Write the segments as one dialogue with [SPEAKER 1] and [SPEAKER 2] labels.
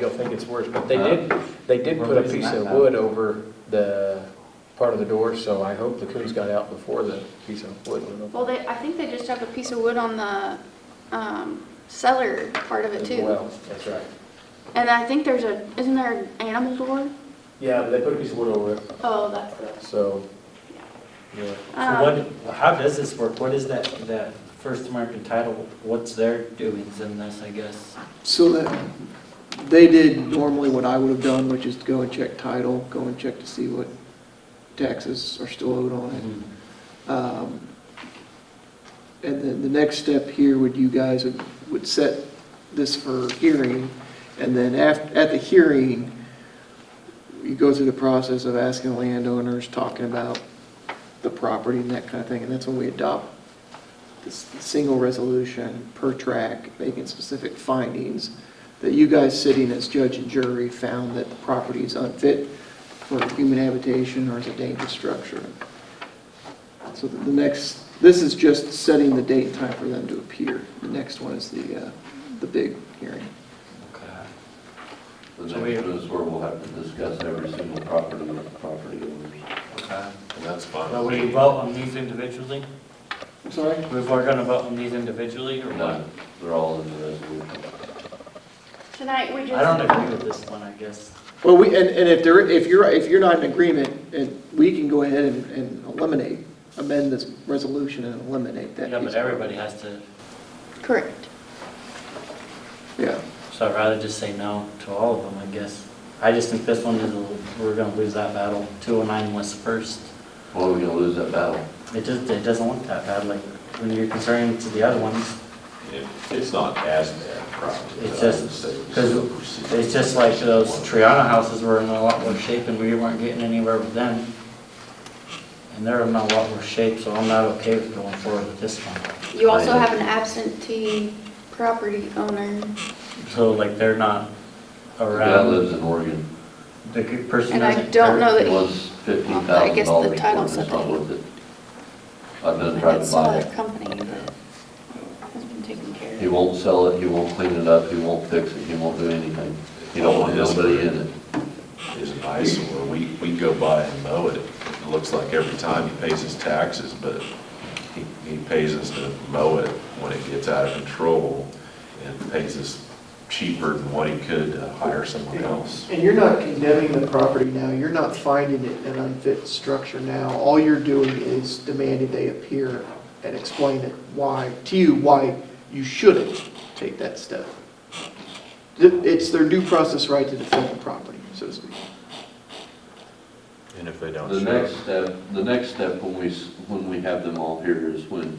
[SPEAKER 1] You'll think it's worse, but they
[SPEAKER 2] Uh,
[SPEAKER 1] did, they did put a piece of wood over the part of the door, so I hope the coons got out before the piece of wood went over.
[SPEAKER 3] Well, they, I think they just have a piece of wood on the um, cellar part of it
[SPEAKER 1] as
[SPEAKER 3] too.
[SPEAKER 1] Well, that's right.
[SPEAKER 3] And I think there's a, isn't there an animal door?
[SPEAKER 1] Yeah, but they put a piece of wood over it,
[SPEAKER 3] Oh, that's the.
[SPEAKER 1] so, yeah.
[SPEAKER 3] um,
[SPEAKER 2] So what, how does this work? What is that, that First American title, what's their doings in this, I guess?
[SPEAKER 4] So that, they did normally what I would have done, which is go and check title, go and check to see what taxes are still owed on
[SPEAKER 2] Mm-hmm.
[SPEAKER 4] it. Um, And then the next step here would you guys would- would set this for hearing, and then af, at the hearing, you go through the process of asking landowners, talking about the property and that kind of thing, and that's when we adopt this single resolution per track, making specific findings, that you guys sitting as judge and jury found that the property is unfit for human habitation or is a dangerous structure. So the the next, this is just setting the date and time for them to appear. The next one is the, uh, the big hearing.
[SPEAKER 2] Okay.
[SPEAKER 5] The
[SPEAKER 2] So we-
[SPEAKER 5] next is where we'll have to discuss every single property with the property owners.
[SPEAKER 2] Okay.
[SPEAKER 5] And that's
[SPEAKER 2] But we vote on these individually?
[SPEAKER 4] I'm sorry?
[SPEAKER 2] If we're gonna vote on these individually or what?
[SPEAKER 5] No, they're all in the resolution.
[SPEAKER 3] Tonight, we
[SPEAKER 2] I don't
[SPEAKER 3] just,
[SPEAKER 2] agree with this one, I guess.
[SPEAKER 4] Well, we, and, and if there, if you're, if you're not in agreement, and we can go ahead and, and eliminate, amend this resolution and eliminate that.
[SPEAKER 2] Yeah,
[SPEAKER 4] piece
[SPEAKER 2] but
[SPEAKER 4] of-
[SPEAKER 2] everybody has to,
[SPEAKER 3] correct.
[SPEAKER 4] Yeah.
[SPEAKER 2] so I'd rather just say no to all of them, I guess. I just think this one is, a little- we're gonna lose that battle. 209 was first.
[SPEAKER 5] Well, we're gonna lose that battle.
[SPEAKER 2] It just, it doesn't look that bad, like, when you're comparing to the other ones.
[SPEAKER 6] It- It's not as bad, probably.
[SPEAKER 2] It's just, because it's just like those Triana houses were in a lot worse shape and we weren't getting anywhere with them. And they're in a lot worse shape, so I'm not okay with going forward with this one.
[SPEAKER 3] You also have an absentee property owner.
[SPEAKER 2] So like they're not
[SPEAKER 5] The guy
[SPEAKER 2] around,
[SPEAKER 5] lives in Oregon.
[SPEAKER 2] the good person
[SPEAKER 3] And I
[SPEAKER 2] doesn't.
[SPEAKER 3] don't know
[SPEAKER 5] He
[SPEAKER 3] But-
[SPEAKER 5] wants fifteen
[SPEAKER 3] Well, I
[SPEAKER 5] thousand
[SPEAKER 3] guess the
[SPEAKER 5] dollars
[SPEAKER 3] title
[SPEAKER 5] for it,
[SPEAKER 3] said
[SPEAKER 5] it's not
[SPEAKER 3] that.
[SPEAKER 5] worth it. I've been trying
[SPEAKER 3] It's
[SPEAKER 5] to
[SPEAKER 3] still
[SPEAKER 5] buy
[SPEAKER 3] a
[SPEAKER 5] it.
[SPEAKER 3] company, but has been taken care
[SPEAKER 5] He
[SPEAKER 3] of.
[SPEAKER 5] won't sell it, he won't clean it up, he won't fix it, he won't do anything. He don't want nobody in it.
[SPEAKER 6] It's an eyesore. We, we go by and mow it. It looks like every time he pays his taxes, but he, he pays us to mow it when it gets out of control and pays us cheaper than what he could to hire someone else.
[SPEAKER 4] And you're not condemning the property now, you're not finding it an unfit structure now. All you're doing is demanding they appear and explain it why, to you, why you shouldn't take that step. Th- It's their due process right to defend the property, so to speak.
[SPEAKER 6] And if they don't
[SPEAKER 5] The next step, the next step when we, s- when we have them all here is when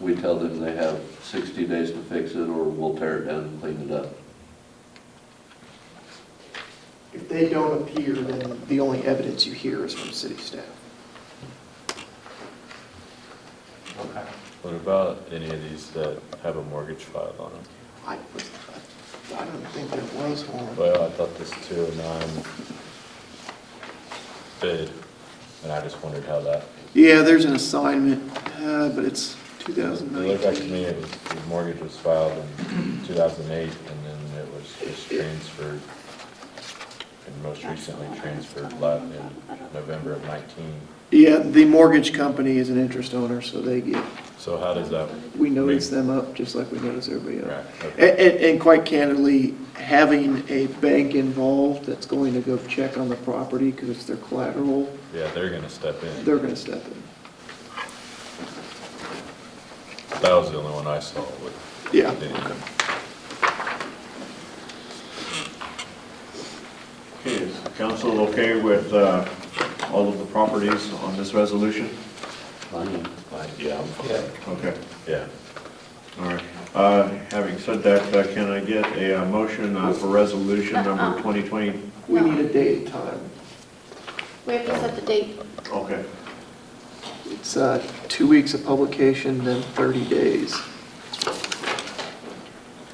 [SPEAKER 5] we tell them they have 60 days to fix it or we'll tear it down and clean it up.
[SPEAKER 4] If they don't appear, then the only evidence you hear is from city staff.
[SPEAKER 2] Okay.
[SPEAKER 7] What about any of these that have a mortgage filed on them?
[SPEAKER 4] I, I don't think there was one.
[SPEAKER 7] Well, I thought this 209 bid, and I just wondered how that,
[SPEAKER 4] Yeah, there's an assignment, uh, but it's
[SPEAKER 7] it looked like to me it was, the mortgage was filed in 2008, and then it was just transferred, and most recently transferred la- in November of 19.
[SPEAKER 4] Yeah, the mortgage company is an interest owner, so they get,
[SPEAKER 7] So how does that?
[SPEAKER 4] we notice them up just like we notice everybody
[SPEAKER 7] Right,
[SPEAKER 4] else. And,
[SPEAKER 7] okay.
[SPEAKER 4] and, and quite candidly, having a bank involved that's going to go check on the property because it's their collateral,
[SPEAKER 7] Yeah, they're gonna step in.
[SPEAKER 4] they're gonna step in.
[SPEAKER 7] That was the only one I saw with.
[SPEAKER 4] Yeah.
[SPEAKER 7] anything.
[SPEAKER 8] Okay, is the council okay with uh, all of the properties on this resolution?
[SPEAKER 5] Fine.
[SPEAKER 6] Yeah, I'm fine.
[SPEAKER 8] Okay,
[SPEAKER 7] Yeah.
[SPEAKER 8] all right. Uh, Having said that, uh, can I get a uh, motion uh, for resolution number 2020?
[SPEAKER 4] We need a date and time.
[SPEAKER 3] We have to set the date.
[SPEAKER 8] Okay,
[SPEAKER 4] It's, uh, two weeks of publication, then thirty days.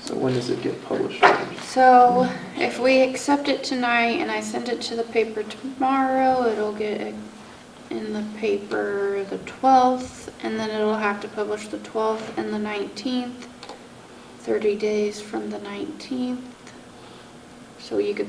[SPEAKER 4] So when does it get published?
[SPEAKER 3] So if we accept it tonight and I send it to the paper tomorrow, it'll get in the paper the 12th, and then it'll have to publish the 12th and the 19th, 30 days from the 19th. So you could